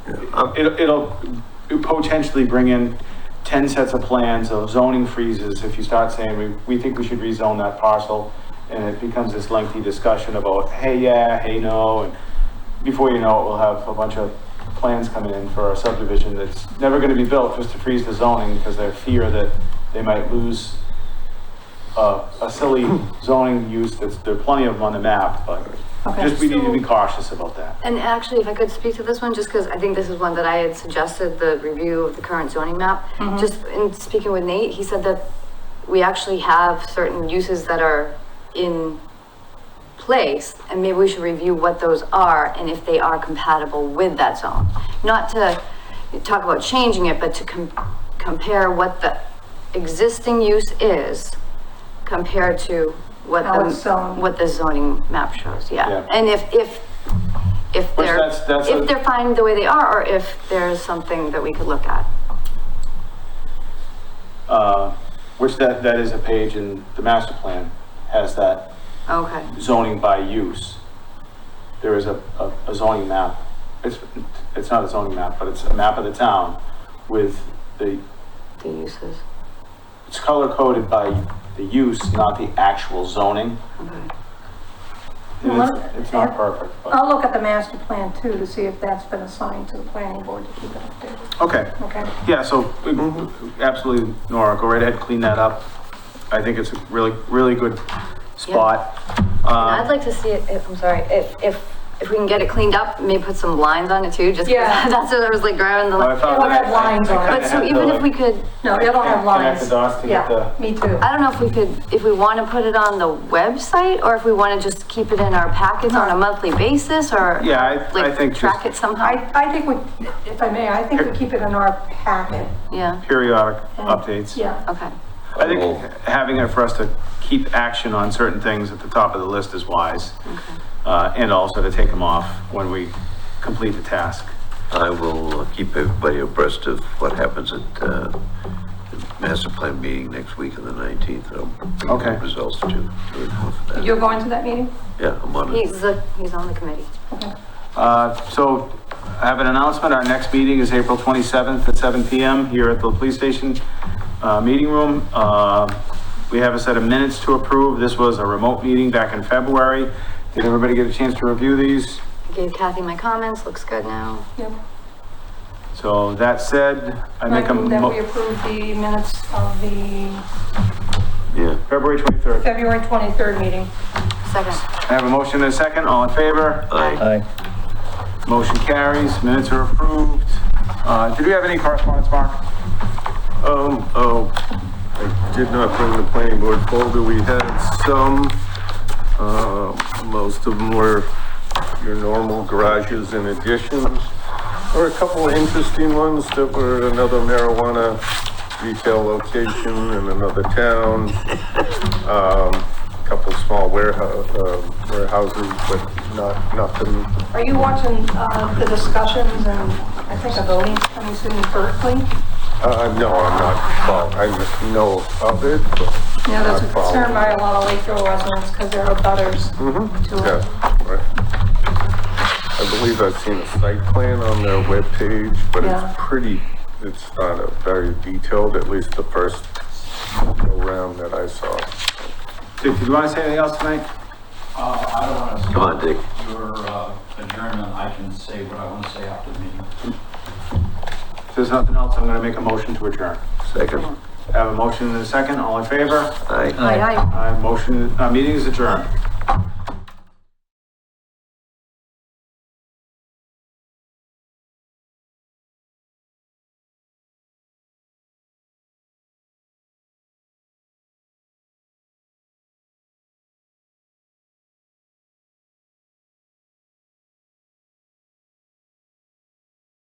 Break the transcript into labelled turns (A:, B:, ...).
A: uh, it'll, it'll potentially bring in ten sets of plans of zoning freezes if you start saying, we, we think we should rezone that parcel. And it becomes this lengthy discussion about, hey, yeah, hey, no, and before you know it, we'll have a bunch of plans coming in for a subdivision that's never gonna be built just to freeze the zoning because they fear that they might lose a, a silly zoning use that's, there are plenty of them on the map, but
B: Okay.
A: just, we need to be
C: So-
A: cautious about that.
C: And actually, if I could speak to this one, just because I think this is one that I had suggested, the review of the current zoning map.
B: Mm-hmm.
C: Just in speaking with Nate, he said that we actually have certain uses that are in place, and maybe we should review what those are and if they are compatible with that zone. Not to talk about changing it, but to com- compare what the existing use is compared to what
B: How it's
C: the,
B: zoned.
C: what the zoning map shows,
A: Yeah.
C: yeah. And if, if if
A: Which
C: they're,
A: that's- that's a-
C: if they're fine the way they are, or if there's something that we could look at.
A: Uh, which that, that is a page in the master plan, has that
C: Okay,
A: zoning by use. There is a, a- a zoning map, it's, it's not a zoning map, but it's a map of the town with the,
C: the uses,
A: it's color coded by the use, not the actual zoning.
C: okay.
A: And
B: Well,
A: It's, it's not perfect, but,
B: I'll look at the master plan too to see if that's been assigned to the planning board to keep it updated,
A: okay,
B: okay?
A: yeah, so mm-hmm, absolutely, Nora, go right ahead, clean that up. I think it's a really, really good spot. Um,
C: I'd like to see it, if, I'm sorry, if, if, if we can get it cleaned up, maybe put some lines on it too, just 'cause
B: Yeah.
C: that's what I was like grabbing
A: I
C: the.
A: thought
B: It'll
A: that-
B: have lines
A: I
B: on it.
A: kinda
C: But so
A: had to,
C: even
A: like,
C: if we could,
B: No, it'll have
A: Connect
B: lines.
A: the dots to get
B: Yeah,
A: the-
B: me too.
C: I don't know if we could, if we want to put it on the website, or if we want to just keep it in our packets on a monthly basis, or.
A: Yeah, I- I
C: like,
A: think
C: Track
A: just-
C: it somehow,
B: I, I think we, if I may, I think we keep it in our packet.
C: yeah,
A: periodic updates.
B: Yeah,
C: okay.
A: I think having it for us to keep action on certain things at the top of the list is wise. Uh, and also to take them off when we complete the task.
D: I will keep everybody abreast of what happens at, uh, the master plan meeting next week on the nineteenth. um,
A: Okay.
D: Results to, to report for that.
B: you're going to that meeting?
D: Yeah, I'm on it.
C: He's, the- he's on the committee.
A: Uh, so I have an announcement. Our next meeting is April 27th at 7 PM here at the police station, uh, meeting room. Uh, we have a set of minutes to approve. This was a remote meeting back in February. Did everybody get a chance to review these?
C: I Gave Kathy my comments, looks good now.
B: Yep.
A: So that said, I make a,
B: I move that we
A: mo-
B: approve the minutes of the
D: Yeah.
A: February 23rd.
B: February 23rd meeting.
C: Second.
A: I have a motion and a second. All in favor?
D: Aye.
A: Motion carries, minutes are approved. Uh, Did we have any correspondence, Mark?
E: Um, oh, I did not bring the planning board folder, we had some, uh, most of them were your normal garages and additions. There were a couple of interesting ones that were another marijuana retail location in another town. Um, a couple small warehouse, uh, warehouses, but not, nothing
B: Are you watching uh, the discussions and I think a voting coming soon in Berkeley?
E: Uh, no, I'm not, well, I know of it, but.
B: You know, that's
E: not
B: concerned by
E: following.
B: a lot of Lakeville residents because there are butters
A: Mm.
E: Mm-hmm.
B: to it.
E: Yeah, right. I believe I've seen a site plan on their webpage, but
B: Yeah.
E: it's pretty, it's not a very detailed, at least the first round that I saw.
A: Dick, did you want to say anything else tonight?
F: Uh, I don't want to.
D: Come on, Dick.
F: Your uh, adjournment, I can say what I want to say after the meeting.
A: If there's nothing else, I'm going to make a motion to adjourn.
D: Second.
A: I Have a motion and a second, all in favor?
D: Aye.
C: Aye, aye.
A: Uh, Motion, uh, meeting is adjourned.